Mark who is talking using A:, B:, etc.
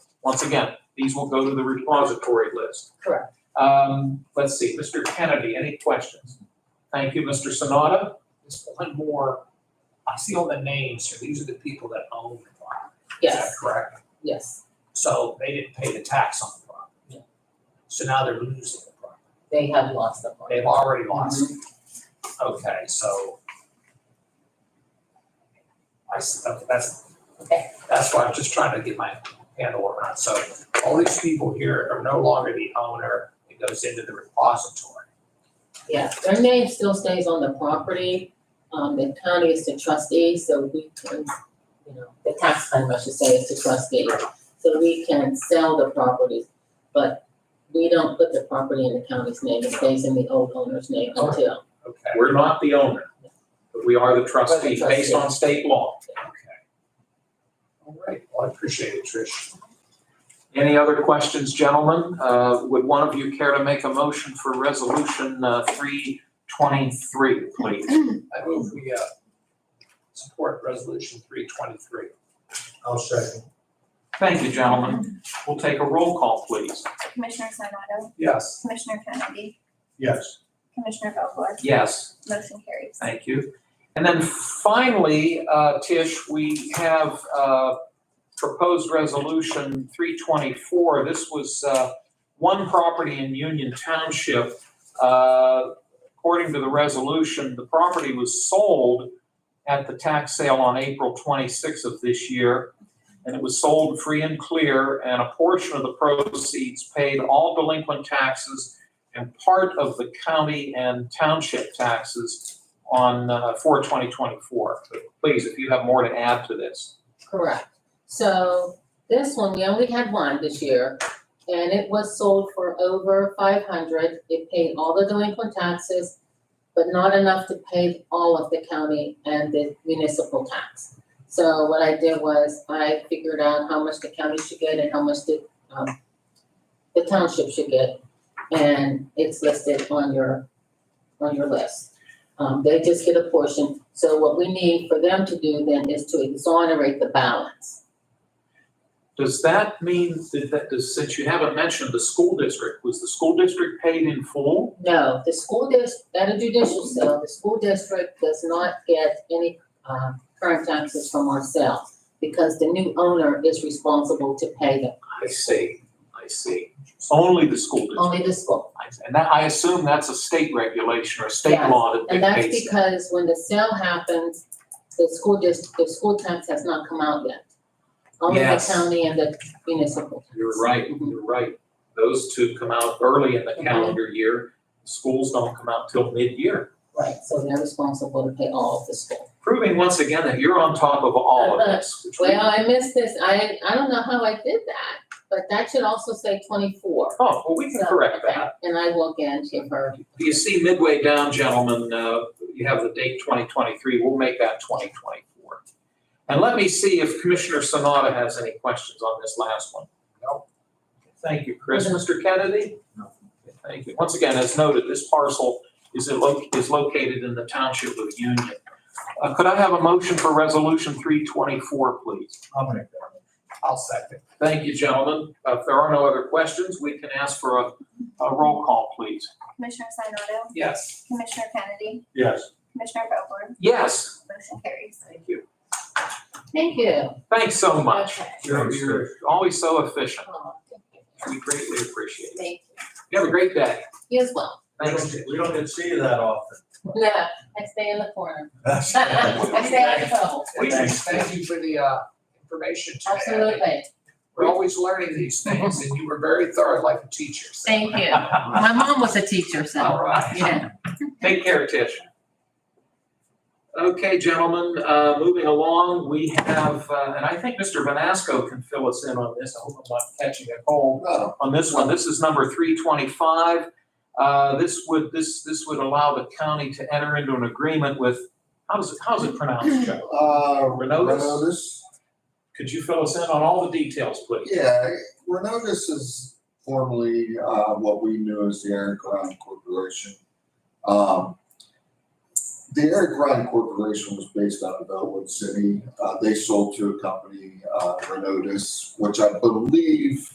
A: Once again, these will go to the repository list.
B: Correct.
A: Um, let's see, Mr. Kennedy, any questions? Thank you, Mr. Sonata.
C: Just one more, I see all the names here, these are the people that own the property. Is
B: Yes,
C: that correct?
B: yes,
C: So they didn't pay the tax on the property. So now they're losing the property.
B: they have lost the money.
C: They've already lost. it. Okay, so. I see, okay, that's,
B: Okay.
C: that's why I'm just trying to get my handle around. So all these people here are no longer the owner. It goes into the repository.
B: Yeah, their name still stays on the property. Um, the county is the trustee, so we can, you know, the tax claim, I should say, is the trustee. So we can sell the property, but we don't put the property in the county's name. It stays in the old owner's name until.
C: Okay.
A: We're not the owner, but we are the trustee based
B: trustee.
A: on state law.
C: Okay. All right, well, I appreciate it, Trish.
A: Any other questions, gentlemen? Uh, would one of you care to make a motion for resolution, uh, three twenty-three, please?
C: I move we, uh, support resolution three twenty-three.
D: I'll second.
A: Thank you, gentlemen. We'll take a roll call, please.
E: Commissioner Sonato,
C: Yes.
E: Commissioner Kennedy,
D: Yes.
E: Commissioner Vogler,
A: Yes.
E: motion carries.
A: Thank you. And then finally, uh, Tish, we have uh, proposed resolution 324. This was uh, one property in Union Township. Uh, According to the resolution, the property was sold at the tax sale on April 26th of this year. And it was sold free and clear, and a portion of the proceeds paid all delinquent taxes and part of the county and township taxes on, uh, for 2024. But Please, if you have more to add to this.
B: Correct. So this one, we only had one this year, and it was sold for over five hundred. It paid all the delinquent taxes, but not enough to pay all of the county and the municipal tax. So what I did was I figured out how much the county should get and how much the, um, the township should get. And it's listed on your, on your list. Um, they just get a portion, so what we need for them to do then is to exonerate the balance.
A: Does that mean that, that- does- since you haven't mentioned the school district, was the school district paid in full?
B: No, the school dis, at a judicial sale, the school district does not get any, um, current taxes from ourselves because the new owner is responsible to pay them,
A: I see, I see. Only the school district.
B: only the school.
A: And that, I assume that's a state regulation or state
B: Yes,
A: law that
B: And that's
A: dictates that.
B: because when the sale happens, the school district, the school tax has not come out yet. Only the
A: Yes.
B: county and the municipal tax.
A: You're right,
B: Mhm.
A: you're right. Those two come out early in the
B: Mhm.
A: calendar year. Schools don't come out till mid-year.
B: Right, so they're responsible to pay all of the school.
A: Proving once again that you're on top of all of this, which we
B: Uh, Well, I missed this, I, I don't know how I did that, but that should also say twenty-four.
A: Oh, well, we can
B: So,
A: correct
B: okay,
A: that.
B: And I will again give her,
A: You see midway down, gentlemen, uh, you have the date 2023, we'll make that 2024. And let me see if Commissioner Sanada has any questions on this last one. No. Thank you, Chris. Mr. Kennedy?
D: No.
A: Thank you. Once again, as noted, this parcel is in lo- is located in the township of Union. Uh, Could I have a motion for Resolution 324, please?
D: I'll make that.
C: I'll second.
A: Thank you, gentlemen. Uh, If there are no other questions, we can ask for a a roll call, please.
E: Commissioner Sonato,
C: Yes.
E: Commissioner Kennedy,
D: Yes.
E: Commissioner Vogler,
A: Yes.
E: motion carries.
A: Thank you.
B: thank you.
A: Thanks so much.
B: Okay.
A: You're, you're always so efficient.
B: Oh, thank you.
A: We greatly appreciate it.
B: Thank you.
A: You have a great day.
B: You as well.
A: Thanks.
D: We don't get to see you that often.
B: Yeah, I stay in the corner.
D: That's.
F: Uh,
B: I stay out of trouble,
C: We should
D: Thanks.
C: thank you for the, uh, information today.
B: absolutely.
C: We're always learning these things and you were very thorough like a teacher. so-
B: Thank you. My mom was a teacher,
A: All
B: so,
A: right.
B: yeah.
A: Take care, Tish. Okay, gentlemen, uh, moving along, we have, uh, and I think Mr. Vanasco can fill us in on this. I hope I'm not catching a cold.
C: Oh,
A: on this one. This is number three twenty-five. Uh, this would, this, this would allow the county to enter into an agreement with, how does it, how's it pronounced, Joe?
F: Uh,
A: Renotis?
F: Renotis?
A: Could you fill us in on all the details, please?
F: Yeah, Renotis is formerly, uh, what we knew as the Aaron Crown Corporation. Um, the Eric Ryan Corporation was based out of Elwood City. Uh, they sold to a company, uh, Renodus, which I believe